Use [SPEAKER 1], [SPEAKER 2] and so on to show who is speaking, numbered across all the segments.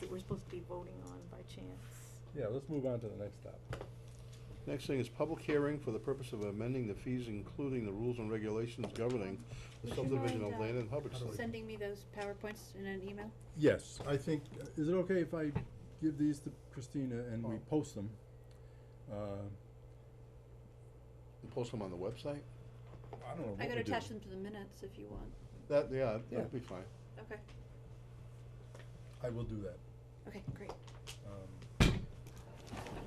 [SPEAKER 1] that we're supposed to be voting on by chance.
[SPEAKER 2] Yeah, let's move on to the next topic.
[SPEAKER 3] Next thing is public hearing for the purpose of amending the fees, including the rules and regulations governing the
[SPEAKER 1] Would you
[SPEAKER 3] subdivision
[SPEAKER 1] mind,
[SPEAKER 3] of
[SPEAKER 1] uh,
[SPEAKER 3] land in Hubbardston.
[SPEAKER 4] Sending me those PowerPoints in an email?
[SPEAKER 2] Yes, I think, is it okay if I give these to Christina and we
[SPEAKER 3] Oh.
[SPEAKER 2] post them? Uh,
[SPEAKER 3] And Post them on the website?
[SPEAKER 2] I don't know what
[SPEAKER 4] I could
[SPEAKER 2] we do.
[SPEAKER 4] attach them to the minutes if you want.
[SPEAKER 3] That, yeah,
[SPEAKER 2] Yeah.
[SPEAKER 3] that'd be fine.
[SPEAKER 4] Okay,
[SPEAKER 2] I will do that.
[SPEAKER 4] okay, great.
[SPEAKER 2] Um,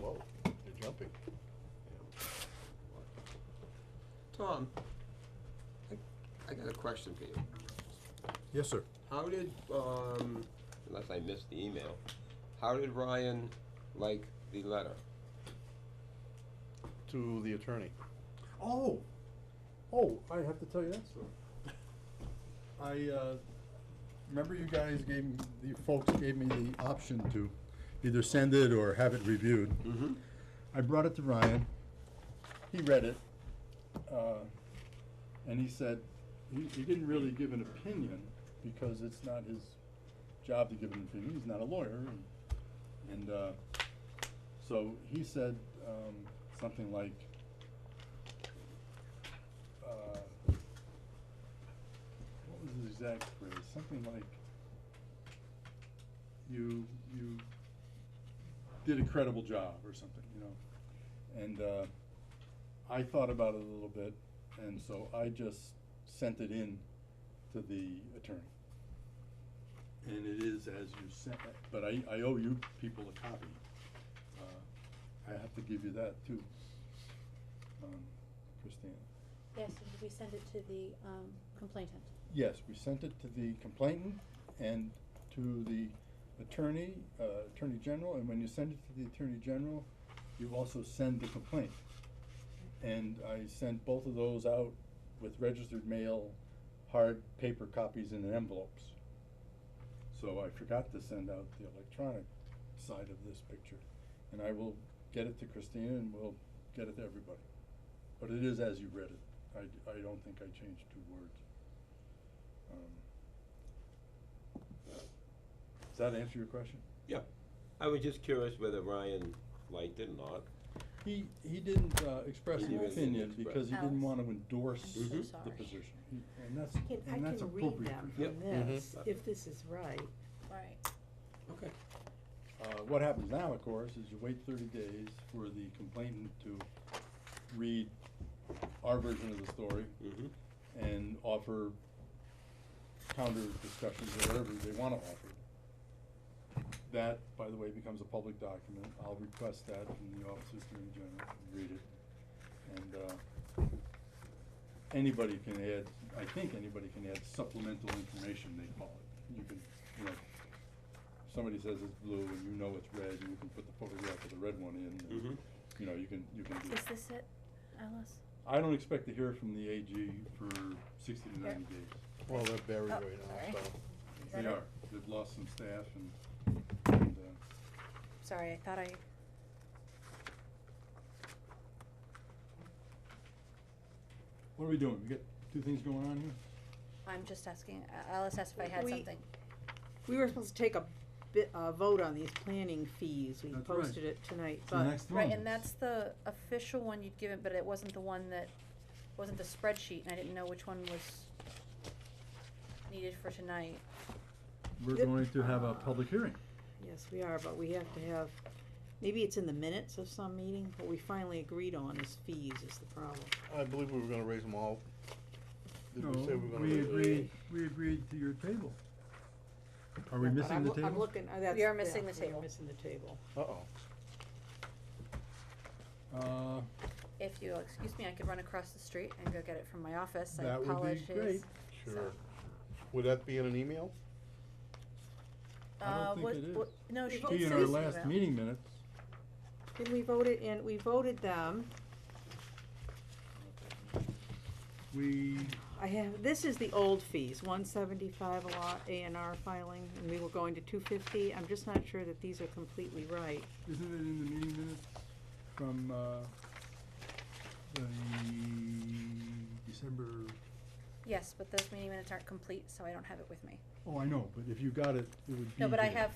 [SPEAKER 3] Whoa, you're jumping.
[SPEAKER 5] Tom, I, I got a question for you.
[SPEAKER 2] Yes, sir.
[SPEAKER 5] How did, um, unless I missed the email, how did Ryan like the letter?
[SPEAKER 3] To the attorney.
[SPEAKER 2] Oh, oh, I have to tell you that story. I, uh, remember you guys gave, me- the folks gave me the option to either send it or have it reviewed.
[SPEAKER 5] Mm-hmm.
[SPEAKER 2] I brought it to Ryan. He read it, uh, and he said, he, he didn't really give an opinion because it's not his job to give an opinion. He's not a lawyer. And, and uh, so he said um, something like, uh, what was his exact phrase? Something like, you, you did a credible job or something, you know. And uh, I thought about it a little bit, and so I just sent it in to the attorney. And it is as you sent it, but I, I owe you people a copy. Uh, I have to give you that too, um, Christina.
[SPEAKER 4] Yes, we send it to the um, complainant.
[SPEAKER 2] Yes, we sent it to the complainant and to the attorney, uh, Attorney General, and when you send it to the Attorney General, you also send the complaint. And I sent both of those out with registered mail, hard paper copies in envelopes. So I forgot to send out the electronic side of this picture. And I will get it to Christina and we'll get it to everybody. But it is as you read it. I, d- I don't think I changed two words. Um, Does that answer your question?
[SPEAKER 5] Yeah, I was just curious whether Ryan liked it or not.
[SPEAKER 2] He, he didn't uh, express
[SPEAKER 5] He
[SPEAKER 2] an
[SPEAKER 5] didn't
[SPEAKER 2] opinion
[SPEAKER 5] express. Mm-hmm.
[SPEAKER 2] because he
[SPEAKER 1] Oh,
[SPEAKER 2] didn't
[SPEAKER 4] Alex.
[SPEAKER 2] want to endorse
[SPEAKER 4] I'm
[SPEAKER 2] the
[SPEAKER 5] so
[SPEAKER 2] position.
[SPEAKER 4] sorry.
[SPEAKER 2] He- And that's,
[SPEAKER 1] I can, I
[SPEAKER 2] and that's
[SPEAKER 1] can read
[SPEAKER 2] appropriate.
[SPEAKER 1] them
[SPEAKER 2] for him. Mm-hmm.
[SPEAKER 1] from
[SPEAKER 5] Yep.
[SPEAKER 1] this,
[SPEAKER 5] Mhm.
[SPEAKER 1] if this is right.
[SPEAKER 4] Right.
[SPEAKER 5] Okay.
[SPEAKER 2] Uh, What happens now, of course, is you wait thirty days for the complainant to read our version of the story
[SPEAKER 5] Mm-hmm.
[SPEAKER 2] and offer counter discussions or whatever they want to offer. That, by the way, becomes a public document. I'll request that from the Office of Attorney General, and read it. And, uh, anybody can add, I think anybody can add supplemental information, they call it. You can, you know, somebody says it's blue and you know it's red, and you can put the photograph of the red one in. and,
[SPEAKER 5] Mhm.
[SPEAKER 2] You know, you can, you can do
[SPEAKER 4] Is this it, Alice?
[SPEAKER 2] I don't expect to hear from the AG for sixty to ninety days.
[SPEAKER 3] Well, they're buried
[SPEAKER 4] Oh,
[SPEAKER 3] right now,
[SPEAKER 4] sorry.
[SPEAKER 3] so.
[SPEAKER 4] Is
[SPEAKER 2] They
[SPEAKER 4] that it?
[SPEAKER 2] are, they've lost some staff and, and, uh,
[SPEAKER 4] Sorry, I thought I,
[SPEAKER 2] what are we doing? We got two things going on here?
[SPEAKER 4] I'm just asking, A- Alice asked if I had
[SPEAKER 1] We-
[SPEAKER 4] something.
[SPEAKER 1] We were supposed to take a bit, a vote on these planning fees, we
[SPEAKER 2] That's right.
[SPEAKER 1] posted it tonight,
[SPEAKER 2] It's the
[SPEAKER 1] but,
[SPEAKER 2] next
[SPEAKER 4] Right,
[SPEAKER 2] one.
[SPEAKER 4] and that's the official one you'd given, but it wasn't the one that, wasn't the spreadsheet, and I didn't know which one was needed for tonight.
[SPEAKER 2] We're
[SPEAKER 1] Yep.
[SPEAKER 2] going to have a public hearing.
[SPEAKER 1] yes, we are, but we have to have, maybe it's in the minutes of some meeting, what we finally agreed on is fees is the problem.
[SPEAKER 3] I believe we were gonna raise them all. Did we say we were gonna
[SPEAKER 2] we
[SPEAKER 3] raise them?
[SPEAKER 2] agreed, we agreed to your table. Are we
[SPEAKER 1] But
[SPEAKER 2] missing
[SPEAKER 1] I'm
[SPEAKER 2] the
[SPEAKER 1] loo- I'm
[SPEAKER 2] table?
[SPEAKER 1] looking, uh, that's.
[SPEAKER 4] We are missing
[SPEAKER 1] yeah,
[SPEAKER 4] the
[SPEAKER 1] we are
[SPEAKER 4] table.
[SPEAKER 1] missing the table.
[SPEAKER 3] Uh-oh.
[SPEAKER 2] Uh,
[SPEAKER 4] If you'll excuse me, I could run across the street and go get it from my office, I
[SPEAKER 2] That would be
[SPEAKER 4] apologize.
[SPEAKER 2] great.
[SPEAKER 3] Sure. Would that be in an email?
[SPEAKER 2] I don't
[SPEAKER 4] Uh,
[SPEAKER 2] think
[SPEAKER 4] what,
[SPEAKER 2] it is.
[SPEAKER 4] what, no, she did
[SPEAKER 2] be in
[SPEAKER 4] say
[SPEAKER 2] our
[SPEAKER 4] something
[SPEAKER 2] last
[SPEAKER 4] about-
[SPEAKER 2] meeting minutes.
[SPEAKER 1] Did we vote it in, we voted them,
[SPEAKER 2] We,
[SPEAKER 1] I have, this is the old fees, one seventy-five a lot, A and R filing, and we were going to two fifty, I'm just not sure that these are completely right.
[SPEAKER 2] isn't it in the meeting minutes from, uh, the December
[SPEAKER 4] Yes, but those meeting minutes aren't complete, so I don't have it with me.
[SPEAKER 2] Oh, I know, but if you got it, it would be.
[SPEAKER 4] No, but I
[SPEAKER 2] here.
[SPEAKER 4] have